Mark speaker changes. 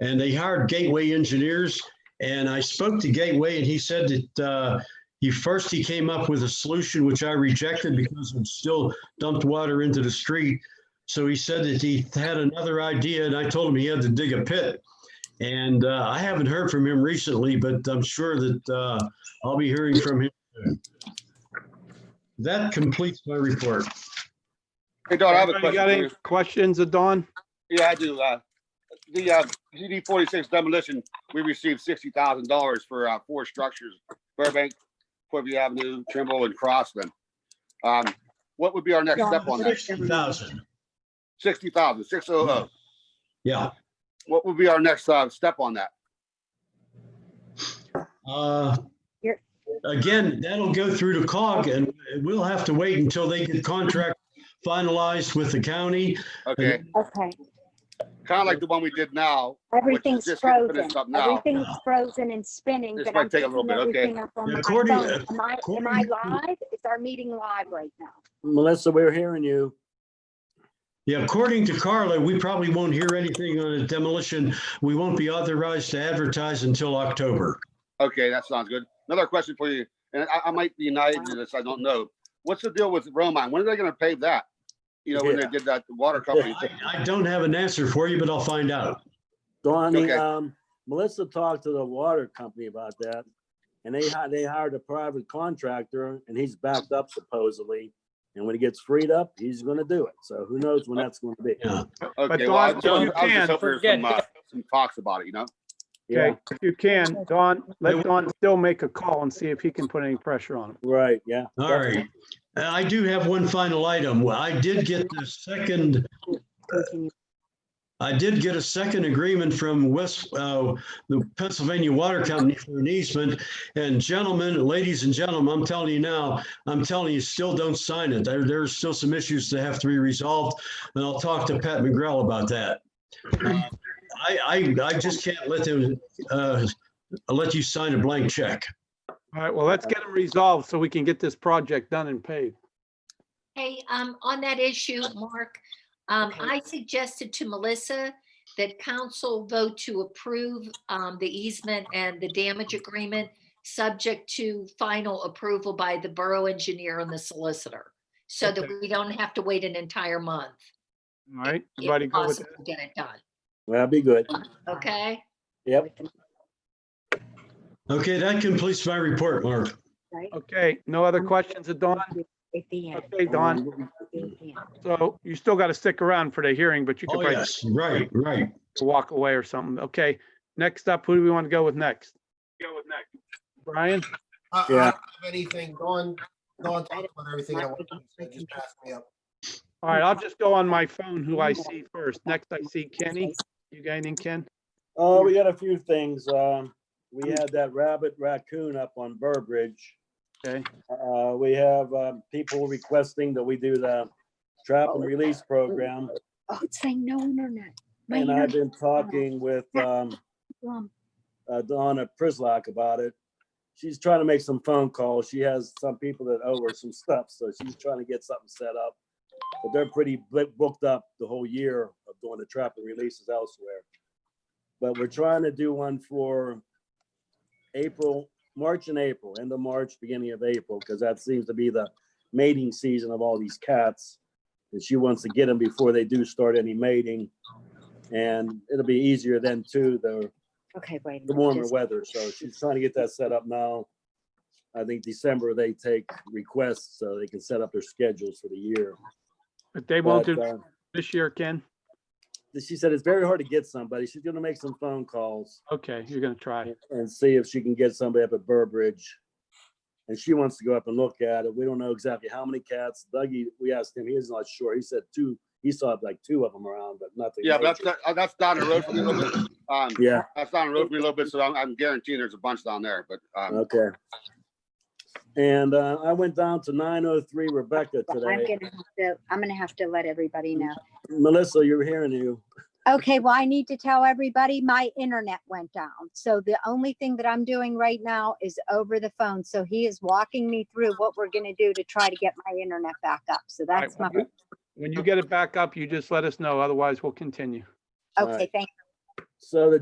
Speaker 1: and they hired Gateway Engineers. And I spoke to Gateway and he said that, uh, he first, he came up with a solution which I rejected because it still dumped water into the street. So he said that he had another idea and I told him he had to dig a pit. And, uh, I haven't heard from him recently, but I'm sure that, uh, I'll be hearing from him. soon. That completes my report.
Speaker 2: Hey, Don, I have a
Speaker 3: Anybody got
Speaker 2: question.
Speaker 3: any
Speaker 2: for
Speaker 3: questions of Don?
Speaker 2: you. Yeah, I do. Uh, the, uh, GD forty-six demolition, we received sixty thousand dollars for, uh, four structures, Burbank, Quibby Avenue, Trimble and Crossman. Um, what would be our next step on that?
Speaker 1: Thousand.
Speaker 2: Sixty thousand, six oh oh.
Speaker 1: Yeah.
Speaker 2: What would be our next, uh, step on that?
Speaker 1: Uh, Again, that'll go through to COG and we'll have to wait until they get contract finalized with the county.
Speaker 2: Okay,
Speaker 4: Okay,
Speaker 2: kinda like the one we did now.
Speaker 4: everything's
Speaker 2: just getting
Speaker 4: frozen.
Speaker 2: finished up now.
Speaker 4: Everything's frozen and spinning,
Speaker 2: This
Speaker 4: but
Speaker 2: might
Speaker 4: I'm
Speaker 2: take a
Speaker 4: picking
Speaker 2: little bit, okay.
Speaker 4: everything up on
Speaker 1: Yeah,
Speaker 4: my phone.
Speaker 1: Courtney, uh,
Speaker 4: Am I, am I
Speaker 1: Courtney-
Speaker 4: live? Is our meeting live right now?
Speaker 5: Melissa, we're hearing you.
Speaker 1: Yeah, according to Carla, we probably won't hear anything on a demolition. We won't be authorized to advertise until October.
Speaker 2: Okay, that sounds good. Another question for you, and I, I might be naive to this, I don't know. What's the deal with Romine? When are they gonna pave that? You know, when they
Speaker 5: Yeah.
Speaker 2: did that water company
Speaker 1: I I don't have an answer for you, but I'll find out.
Speaker 5: Donnie,
Speaker 2: Okay.
Speaker 5: um, Melissa talked to the water company about that. And they hi- they hired a private contractor and he's backed up supposedly. And when he gets freed up, he's gonna do it. So who knows when that's gonna be?
Speaker 1: Yeah.
Speaker 2: Okay,
Speaker 3: Don,
Speaker 2: well, I I
Speaker 3: if
Speaker 2: was just
Speaker 3: you can,
Speaker 2: hoping for
Speaker 3: forget
Speaker 2: some, uh, some talks about it, you know?
Speaker 5: Yeah,
Speaker 3: Okay, if you can, Don, let Don still make a call and see if he can put any pressure on him.
Speaker 5: right, yeah.
Speaker 1: All right. Uh, I do have one final item. Well, I did get the second,
Speaker 4: Continue.
Speaker 1: I did get a second agreement from West, uh, the Pennsylvania Water Company for an easement. And gentlemen, ladies and gentlemen, I'm telling you now, I'm telling you, still don't sign it. There, there's still some issues that have to be resolved. And I'll talk to Pat McGrell about that. Uh, I, I, I just can't let them, uh, let you sign a blank check.
Speaker 3: All right, well, let's get him resolved so we can get this project done and paid.
Speaker 6: Hey, um, on that issue, Mark, um, I suggested to Melissa that council vote to approve, um, the easement and the damage agreement, subject to final approval by the borough engineer and the solicitor, so that
Speaker 3: Okay.
Speaker 6: we don't have to wait an entire month.
Speaker 3: All right,
Speaker 6: if
Speaker 3: everybody go with
Speaker 6: possible, to Get it done,
Speaker 5: Well, that'd be good.
Speaker 6: okay?
Speaker 5: Yep.
Speaker 1: Okay, that completes my report, Mark.
Speaker 4: Right?
Speaker 3: that. Okay, no other questions of Don?
Speaker 4: At the end.
Speaker 3: Okay, Don,
Speaker 4: At the end.
Speaker 3: so you still got to stick around for the hearing, but you could
Speaker 1: Oh,
Speaker 3: probably
Speaker 1: yes, right, right.
Speaker 3: walk away or something. Okay, next up, who do we want to go with next? Go with next. Brian?
Speaker 7: I, I
Speaker 5: Yeah.
Speaker 7: don't have anything, Dawn, Dawn talked about everything I wanted to say, just passed me up.
Speaker 3: All right, I'll just go on my phone who I see first. Next, I see Kenny. You got anything, Ken?
Speaker 5: Oh, we got a few things. Um, we had that rabbit raccoon up on Burbridge.
Speaker 3: Okay.
Speaker 5: Uh, we have, um, people requesting that we do the trap and release program.
Speaker 4: Oh, it's saying no internet. My
Speaker 1: uh,
Speaker 5: And I've
Speaker 4: internet's
Speaker 5: been talking with, um,
Speaker 4: glum.
Speaker 5: uh, Donna Prislock about it. She's trying to make some phone calls. She has some people that owe her some stuff, so she's trying to get something set up. But they're pretty bu- booked up the whole year of doing the trap and releases elsewhere. But we're trying to do one for April, March and April, end of March, beginning of April, because that seems to be the mating season of all these cats. And she wants to get them before they do start any mating. And it'll be easier then too, though,
Speaker 4: Okay, wait. a
Speaker 5: the
Speaker 4: minute,
Speaker 5: warmer
Speaker 4: just-
Speaker 5: weather, so she's trying to get that set up now. I think December they take requests, so they can set up their schedules for the year.
Speaker 3: If they won't
Speaker 5: But,
Speaker 3: do
Speaker 5: uh,
Speaker 3: this year, Ken?
Speaker 5: She said it's very hard to get somebody. She's gonna make some phone calls
Speaker 3: Okay, you're gonna try.
Speaker 5: and see if she can get somebody up at Burbridge. And she wants to go up and look at it. We don't know exactly how many cats. Dougie, we asked him, he is not sure. He said two, he saw like two of them around, but nothing.
Speaker 2: Yeah, but
Speaker 5: major.
Speaker 2: that's, uh, that's down the road for me a little bit. Um,
Speaker 5: Yeah,
Speaker 2: that's down the road for me a little bit, so I'm, I'm guaranteeing there's a bunch down there, but, um,
Speaker 5: okay. And, uh, I went down to nine oh three Rebecca
Speaker 4: Well, I'm
Speaker 5: today.
Speaker 4: gonna have to, I'm gonna have to let everybody know.
Speaker 5: Melissa, you're hearing you.
Speaker 4: Okay, well, I need to tell everybody my internet went down. So the only thing that I'm doing right now is over the phone. So he is walking me through what we're gonna do to try to get my internet back up. So
Speaker 3: All right,
Speaker 4: that's my,
Speaker 3: when you- When you get it back up, you just let us know. Otherwise, we'll continue.
Speaker 5: All right.
Speaker 4: okay, thank
Speaker 5: So the